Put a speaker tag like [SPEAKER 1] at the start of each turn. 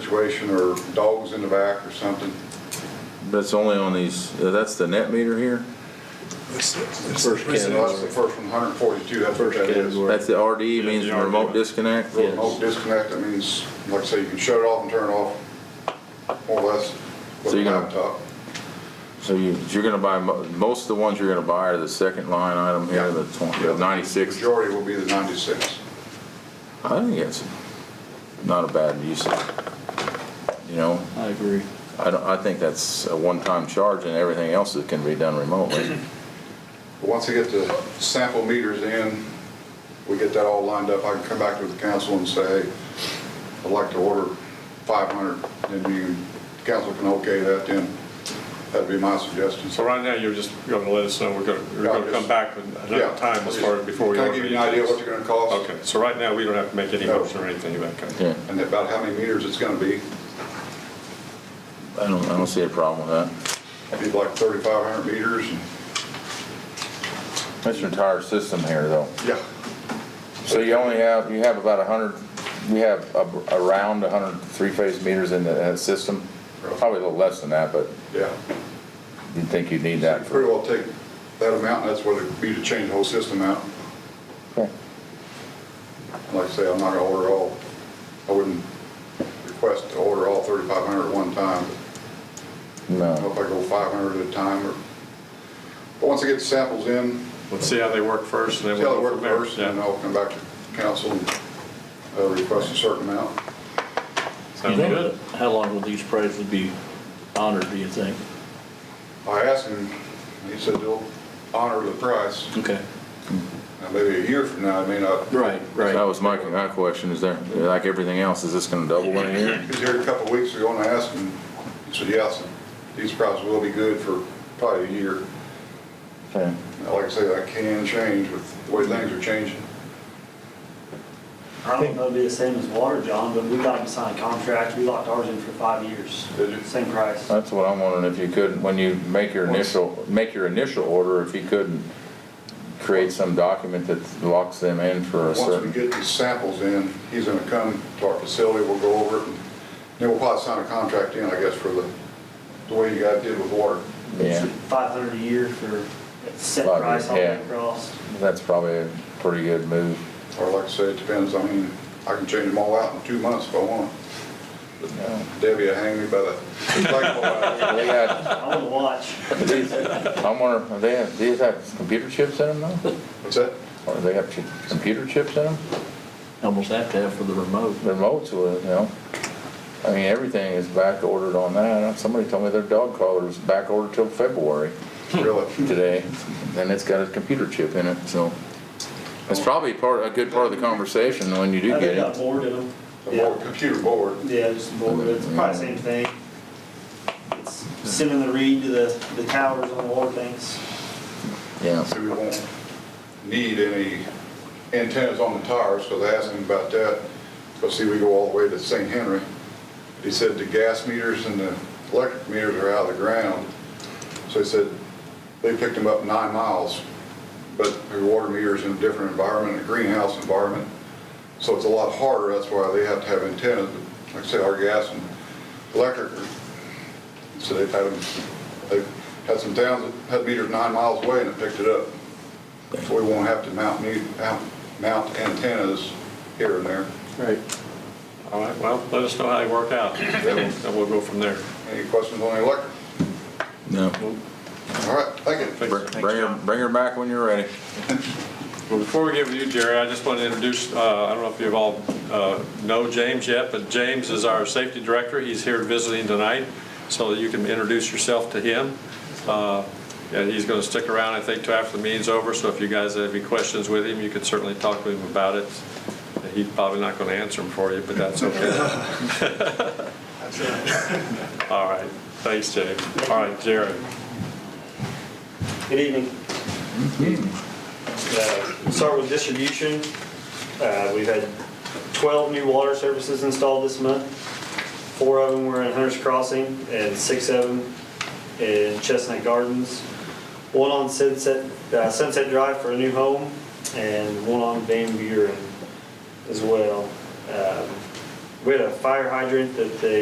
[SPEAKER 1] situation or dogs in the back or something.
[SPEAKER 2] That's only on these, uh, that's the net meter here?
[SPEAKER 3] First
[SPEAKER 1] That's the first one, 142, that's what that is.
[SPEAKER 2] That's the RDE, means
[SPEAKER 3] Yeah, the
[SPEAKER 2] remote
[SPEAKER 3] RDE.
[SPEAKER 2] disconnect?
[SPEAKER 1] Remote disconnect, that means, like I say, you can shut it off and turn it off, more or less, with
[SPEAKER 2] So
[SPEAKER 1] a
[SPEAKER 2] you're gonna-
[SPEAKER 1] laptop.
[SPEAKER 2] So you, you're gonna buy, mo- most of the ones you're gonna buy are the second line item
[SPEAKER 1] Yeah.
[SPEAKER 2] here, the twenty, the ninety-six.
[SPEAKER 1] Majority will be the 96.
[SPEAKER 2] I think it's not a bad use of, you know,
[SPEAKER 3] I agree.
[SPEAKER 2] I don't, I think that's a one-time charge and everything else that can be done remotely.
[SPEAKER 1] But Once I get the sample meters in, we get that all lined up, I can come back to the council and say, hey, I'd like to order 500, and you, council can okay that then. That'd be my suggestion.
[SPEAKER 3] So right now, you're just going to let us know, we're going to, you're
[SPEAKER 1] Yeah,
[SPEAKER 3] going to
[SPEAKER 1] just-
[SPEAKER 3] come back with
[SPEAKER 1] Yeah.
[SPEAKER 3] another time as far as before we
[SPEAKER 1] Can I
[SPEAKER 3] order.
[SPEAKER 1] give you
[SPEAKER 3] these
[SPEAKER 1] an idea
[SPEAKER 3] things?
[SPEAKER 1] what you're gonna cost?
[SPEAKER 3] Okay, so right now, we don't have to make any
[SPEAKER 1] No.
[SPEAKER 3] motion or anything of that kind.
[SPEAKER 2] Yeah,
[SPEAKER 1] And about how many meters it's gonna be.
[SPEAKER 2] I don't, I don't see a problem with
[SPEAKER 1] It'd be like 3,500 meters and.
[SPEAKER 2] that. That's your entire system here, though.
[SPEAKER 1] Yeah.
[SPEAKER 2] So you only have, you have about a hundred, we have a- around a hundred three-phase meters in the uh, system? Probably a little less than that, but
[SPEAKER 1] Yeah.
[SPEAKER 2] you'd think you'd need that for,
[SPEAKER 1] Pretty well take that amount, and that's what it'd be to change the whole system out.
[SPEAKER 2] Okay.
[SPEAKER 1] Like I say, I'm not gonna order all, I wouldn't request to order all 3,500 at one time. I don't know
[SPEAKER 2] no.
[SPEAKER 1] if I go 500 at a time or, but once I get the samples in,
[SPEAKER 3] Let's see how they work first, and then
[SPEAKER 1] see
[SPEAKER 3] we'll.
[SPEAKER 1] how they
[SPEAKER 3] go
[SPEAKER 1] work
[SPEAKER 3] from there.
[SPEAKER 1] first, and then
[SPEAKER 3] Yeah.
[SPEAKER 1] I'll come back to council and uh, request a certain amount.
[SPEAKER 3] Sound
[SPEAKER 4] You think-
[SPEAKER 3] good?
[SPEAKER 4] How long will these prizes be honored, do you think?
[SPEAKER 1] I asked him, and he said they'll honor the price.
[SPEAKER 4] Okay.
[SPEAKER 1] Now, maybe a year from now, I may not,
[SPEAKER 4] Right,
[SPEAKER 2] That was my, my question, is there, like everything else, is this gonna double in a year?
[SPEAKER 1] he was here a couple of weeks ago and I asked him, he said, yes, these prices will be good for probably a year.
[SPEAKER 2] Okay.
[SPEAKER 1] Now, Like I say, that can change with the way things are changing.
[SPEAKER 5] I don't know if it'll be the same as water, John, but we got them to sign contracts. We locked ours in for five years.
[SPEAKER 1] Did you?
[SPEAKER 5] Same price.
[SPEAKER 2] That's what I'm wondering, if you could, when you make your initial, make your initial order, if you couldn't create some document that locks them in for a
[SPEAKER 1] Once we
[SPEAKER 2] certain,
[SPEAKER 1] get these samples in, he's gonna come to our facility, we'll go over it, and then we'll probably sign a contract in, I guess, for the, the way you guys did with water.
[SPEAKER 2] yeah,
[SPEAKER 5] Five hundred a year for a set
[SPEAKER 2] Five
[SPEAKER 5] price all the
[SPEAKER 2] years,
[SPEAKER 5] way
[SPEAKER 2] yeah.
[SPEAKER 5] across.
[SPEAKER 2] that's probably a pretty good move.
[SPEAKER 1] Or like I say, it depends, I mean, I can change them all out in two months if I want. Debbie will hang me by the,
[SPEAKER 2] They got,
[SPEAKER 5] I want to watch.
[SPEAKER 2] these, I'm wondering, are they have, these have computer chips in them now?
[SPEAKER 1] what's that?
[SPEAKER 2] Or they have chi- computer chips in them?
[SPEAKER 4] Almost have to have for the remote.
[SPEAKER 2] Their remotes with, you know? I mean, everything is back ordered on that. Somebody told me their dog collar's back ordered till February.
[SPEAKER 1] Really?
[SPEAKER 2] today, and it's got a computer chip in it, so. It's probably part, a good part of the conversation when you do
[SPEAKER 5] I
[SPEAKER 2] get
[SPEAKER 5] think I
[SPEAKER 2] it.
[SPEAKER 5] bored of them.
[SPEAKER 1] The board,
[SPEAKER 5] Yeah,
[SPEAKER 1] computer board.
[SPEAKER 5] yeah, just bored. It's probably the same thing. It's Sending the read to the, the towers on the water tanks.
[SPEAKER 2] Yeah,
[SPEAKER 1] So we won't need any antennas on the tires, so they asked him about that. But see, we go all the way to St. Henry. He said the gas meters and the electric meters are out of the ground. So he said, they picked them up nine miles, but the water meter's in a different environment, a greenhouse environment. So it's a lot harder, that's why they have to have antennas. But Like I said, our gas and electric, are- so they've had them, they've had some towns that had meters nine miles away and it picked it up. So we won't have to mount, me- mount- mount antennas here and there.
[SPEAKER 4] Right.
[SPEAKER 3] All right, well, let us know how they work out, and we'll go from there.
[SPEAKER 1] Any questions on the electric?
[SPEAKER 2] no.
[SPEAKER 1] All right, thank you.
[SPEAKER 2] Br- Bring her, bring her back when you're ready.
[SPEAKER 3] Well, before we get with you, Jerry, I just want to introduce, uh, I don't know if you've all uh, know James yet, but James is our safety director. He's here visiting tonight, so that you can introduce yourself to him. Uh, And he's going to stick around, I think, till after the meeting's over, so if you guys have any questions with him, you can certainly talk to him about it. He's probably not going to answer them for you, but that's okay. All right, thanks, James. All right, Jerry.
[SPEAKER 5] Good evening. Uh, we'll Start with distribution. Uh, We've had 12 new water services installed this month. Four of them were in Hunter's Crossing and six of them in Chestnut Gardens. One on Sunset, uh, Sunset Drive for a new home and one on Van Buren as well. Um, we had a fire hydrant that they